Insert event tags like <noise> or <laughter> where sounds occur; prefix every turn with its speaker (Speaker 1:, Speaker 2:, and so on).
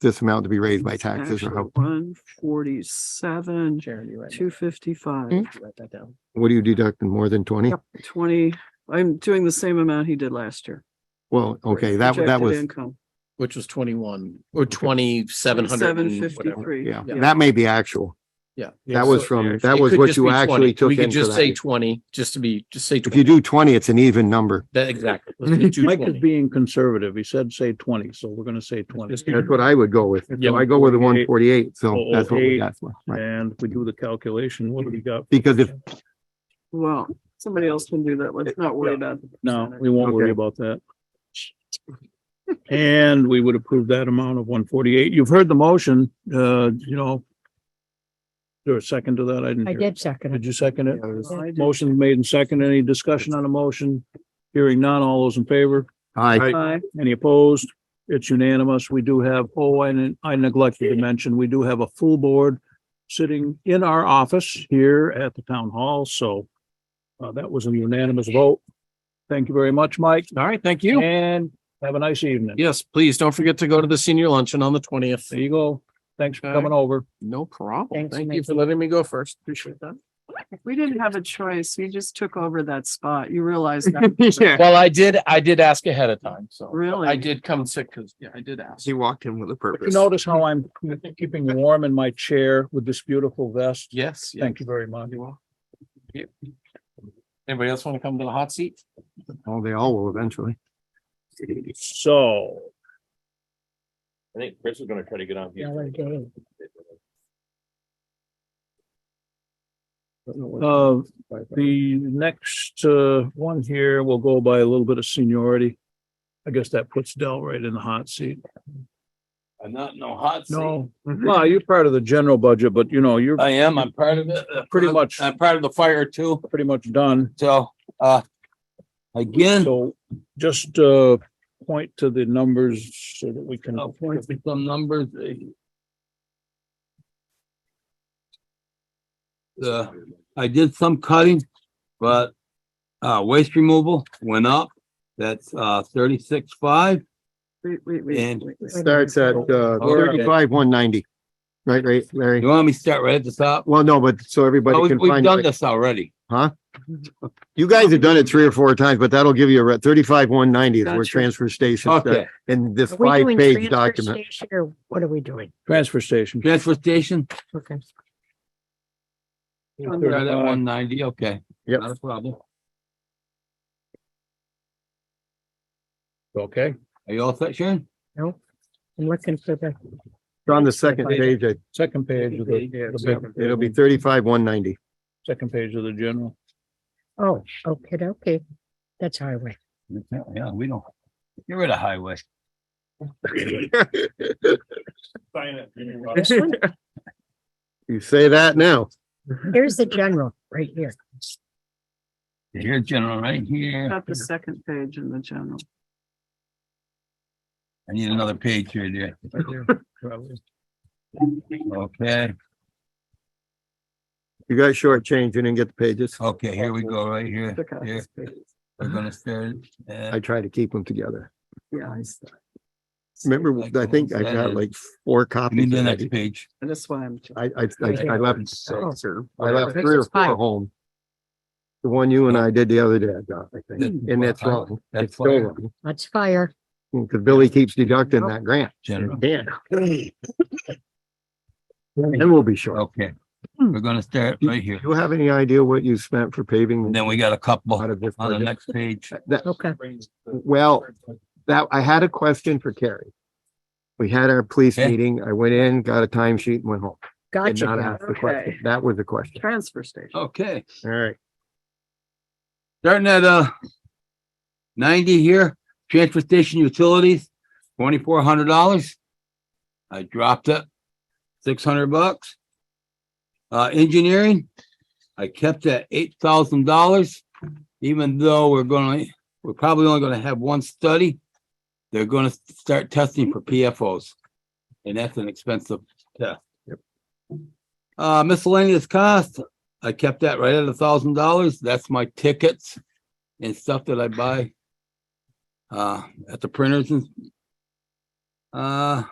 Speaker 1: this amount to be raised by taxes or how,
Speaker 2: One forty-seven,
Speaker 3: Sharon, you write
Speaker 2: two Hmm?
Speaker 3: that,
Speaker 1: Hmm?
Speaker 2: fifty-five,
Speaker 3: you write that down.
Speaker 1: what do you deduct in more than twenty?
Speaker 2: Yep. twenty, I'm doing the same amount he did last year.
Speaker 1: Well, okay, that, that
Speaker 2: projected
Speaker 1: was,
Speaker 2: Income,
Speaker 3: Which was twenty-one or twenty-seven
Speaker 2: seven
Speaker 3: hundred.
Speaker 2: fifty-three.
Speaker 1: yeah,
Speaker 3: Yeah.
Speaker 1: that may be actual.
Speaker 3: Yeah.
Speaker 1: That was from, that was what you actually took
Speaker 3: We could
Speaker 1: into
Speaker 3: just say
Speaker 1: that.
Speaker 3: twenty, just to be, just say
Speaker 1: If you
Speaker 3: twenty.
Speaker 1: do twenty, it's an even number.
Speaker 3: That, exactly. Let's do
Speaker 4: <laughs> Mike is
Speaker 3: 20.
Speaker 4: being conservative. He said say twenty, so we're gonna say twenty.
Speaker 3: Just-
Speaker 1: That's what I would go with.
Speaker 3: Yeah.
Speaker 1: So I go with the one forty-eight, so
Speaker 4: Oh,
Speaker 1: that's what we
Speaker 4: eight.
Speaker 1: got. for, Right.
Speaker 4: And if we do the calculation, what do we got?
Speaker 1: Because if,
Speaker 2: Well, somebody else can do that. Let's not worry about. the
Speaker 4: No,
Speaker 2: percentage.
Speaker 4: we won't
Speaker 1: Okay.
Speaker 4: worry about that. And we would approve that amount of one forty-eight. You've heard the motion, uh, you know. Is There a second to that? I didn't.
Speaker 5: I
Speaker 4: hear.
Speaker 5: did second it.
Speaker 4: Did you second it?
Speaker 2: I did.
Speaker 4: Motion made and second. Any discussion on a motion? Hearing none. All those in favor?
Speaker 1: <laughs> I,
Speaker 2: Aye.
Speaker 4: Any opposed? It's unanimous. We do have, oh, I didn't- I neglected to mention, we do have a full board sitting in our office here at the town hall, so uh, that was a unanimous vote. Thank you very much, Mike,
Speaker 3: All right, thank you.
Speaker 4: and have a nice evening.
Speaker 3: Yes, please don't forget to go to the senior luncheon on the twentieth.
Speaker 4: There you go. Thanks for
Speaker 3: Okay.
Speaker 4: coming over.
Speaker 3: No problem.
Speaker 5: Thanks,
Speaker 3: Thank you
Speaker 5: Mickey.
Speaker 3: for letting me go first. Appreciate that.
Speaker 2: We didn't have a choice. You just took over that spot. You realize that.
Speaker 3: Well, I did, I did ask ahead of time, so. I
Speaker 2: Really?
Speaker 3: did come sick because, yeah, I did ask.
Speaker 6: He walked in with a
Speaker 4: But
Speaker 6: purpose.
Speaker 4: You notice how I'm keeping warm in my chair with this beautiful vest?
Speaker 3: Yes. yeah,
Speaker 4: Thank you very much.
Speaker 3: you will. Yep. Anybody else want to come to the hot seat?
Speaker 1: oh, they all will eventually.
Speaker 4: So
Speaker 7: I think Chris is gonna try to get on
Speaker 5: Yeah,
Speaker 7: here.
Speaker 5: we're doing.
Speaker 4: Uh, the next, uh, one here will go by a little bit of seniority. I guess that puts Dell right in the hot seat.
Speaker 7: I'm not in no hot seat.
Speaker 4: No, well, you're part of the general budget, but you know, you're
Speaker 7: I am, I'm part of it.
Speaker 4: Pretty much.
Speaker 7: I'm part of the fire too,
Speaker 4: pretty much done.
Speaker 7: so, uh, again.
Speaker 4: So just, uh, point to the numbers so that we can,
Speaker 3: Oh,
Speaker 7: I'll point to some numbers. eh. The, uh, I did some cutting, but, uh, waste removal went up. That's, uh, thirty-six five.
Speaker 2: Wait, wait, wait,
Speaker 7: And-
Speaker 2: wait, wait.
Speaker 1: Starts at, uh,
Speaker 7: All right.
Speaker 1: thirty-five, one ninety. Right, right, Larry?
Speaker 7: You want me to start right at the top?
Speaker 1: Well, no, but so everybody
Speaker 7: Oh, we-
Speaker 1: can
Speaker 7: We've
Speaker 1: find
Speaker 7: done
Speaker 1: it.
Speaker 7: this already.
Speaker 1: You guys have done it three or four times, but that'll give you a re- thirty-five, one ninety is where
Speaker 2: Gotcha.
Speaker 1: transfer stations,
Speaker 7: Okay,
Speaker 1: in this
Speaker 5: Are we doing
Speaker 1: five-page
Speaker 5: transfer
Speaker 1: document.
Speaker 5: station Or what are we doing?
Speaker 4: transfer station.
Speaker 7: transfer station,
Speaker 5: Okay.
Speaker 7: start at one ninety, okay.
Speaker 1: Yep.
Speaker 7: Not a problem.
Speaker 4: Okay,
Speaker 7: Are you all set, Sharon?
Speaker 5: No, I'm looking for the,
Speaker 1: It's on the second page. I-
Speaker 4: second page of the.
Speaker 1: It'll be thirty-five, one ninety.
Speaker 4: Second page of the general.
Speaker 5: oh, okay, okay. That's highway.
Speaker 7: Yeah, we don't. Get rid of highway.
Speaker 5: This one,
Speaker 1: You say that now.
Speaker 5: Here's the general right here.
Speaker 7: Here, general, right here.
Speaker 2: Got the second page in the general.
Speaker 7: I need another page here, dear.
Speaker 4: Right there, probably.
Speaker 7: Okay,
Speaker 1: You got shortchanged. You didn't get the pages.
Speaker 7: okay, here we go, right here.
Speaker 2: Took out
Speaker 7: Here,
Speaker 2: this page.
Speaker 7: we're gonna start.
Speaker 1: I try to keep them together.
Speaker 2: Yeah, I see.
Speaker 1: Remember, I think I got like four
Speaker 7: Give
Speaker 1: copies.
Speaker 7: me the
Speaker 1: already.
Speaker 7: next page.
Speaker 2: And that's why I'm.
Speaker 1: I, I, I I left, I left
Speaker 5: This
Speaker 1: three or
Speaker 5: is five.
Speaker 1: four home. The one you and I did the other day, I got, I
Speaker 7: This
Speaker 1: think,
Speaker 7: is
Speaker 1: and that's
Speaker 7: fire.
Speaker 1: wrong.
Speaker 7: Hmm. That's
Speaker 1: It's still
Speaker 7: fire.
Speaker 1: wrong.
Speaker 5: That's fire.
Speaker 1: Because Billy keeps deducting that grant.
Speaker 7: General,
Speaker 1: Yeah. And we'll be short.
Speaker 7: okay, we're gonna start right here.
Speaker 1: Do you have any idea what you spent for paving?
Speaker 7: And then we got a couple
Speaker 1: Out of this
Speaker 7: on the
Speaker 1: budget?
Speaker 7: next page.
Speaker 1: That,
Speaker 5: Okay.
Speaker 1: well, that, I had a question for Carrie. We had our police
Speaker 7: Okay.
Speaker 1: meeting. I went in, got a timesheet, and went home. Did not
Speaker 5: Gotcha.
Speaker 1: ask the question.
Speaker 2: Okay.
Speaker 1: That was the question.
Speaker 2: Transfer station.
Speaker 7: Okay,
Speaker 1: All right.
Speaker 7: starting at, uh, ninety here, transfer station utilities, twenty-four hundred dollars. I dropped it, six hundred bucks. Uh, engineering, I kept at eight thousand dollars, even though we're gonna, we're probably only gonna have one study. They're gonna start testing for PFOs, and that's an expensive test. Uh, miscellaneous cost, I kept that right at a thousand dollars. That's my tickets and stuff that I buy uh, at the printers and uh,